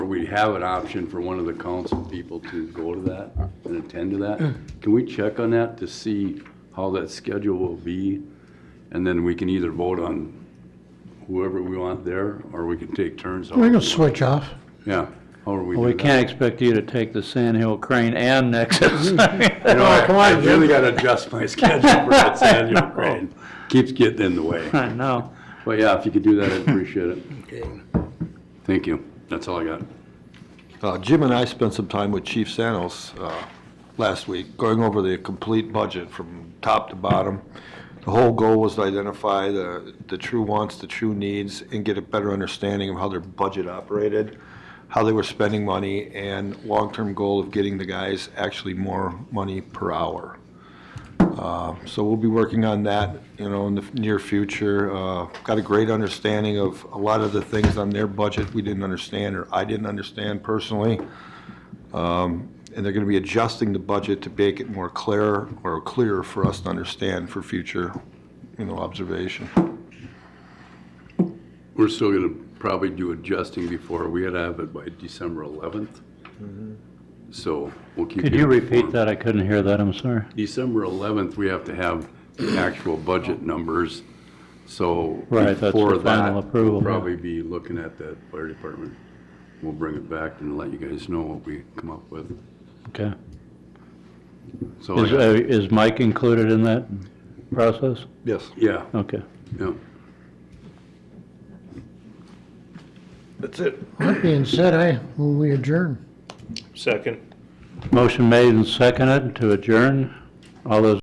have an option for one of the council people to go to that and attend to that. Can we check on that to see how that schedule will be? And then we can either vote on whoever we want there, or we can take turns. We however can we switch off. want. Yeah, however we do Well, that. we can't expect you to take the Sand Hill Crane and Nexus. You know, Oh, come I I on, really gotta adjust my schedule for that annual grade. Keeps getting in the way. I know. But yeah, if you could do that, I'd appreciate it. Thank you. That's all I got. Uh, Jim and I spent some time with Chief Sanos uh, last week, going over the complete budget from top to bottom. The whole goal was to identify the, the true wants, the true needs, and get a better understanding of how their budget operated, how they were spending money, and long-term goal of getting the guys actually more money per hour. So we'll be working on that, you know, in the near future. Uh, Got a great understanding of a lot of the things on their budget we didn't understand, or I didn't understand personally. Um, And they're going to be adjusting the budget to make it more clear, or clearer for us to understand for future, you know, observation. We're still gonna probably do adjusting before, we had to have it by December eleventh. So we'll keep. Could you repeat informed. that? I couldn't hear that, I'm sorry. December eleventh, we have to have the actual budget numbers, so. Right, that's the before that, final approval, we'll yeah. Probably be looking at that fire department. We'll bring it back and let you guys know what we come up with. Okay. So, Is, Oh, yeah. uh, is Mike included in that process? Yes. yeah, Okay. yeah. That's it. That being said, I, move we adjourn. Second. Motion made and seconded to adjourn. All those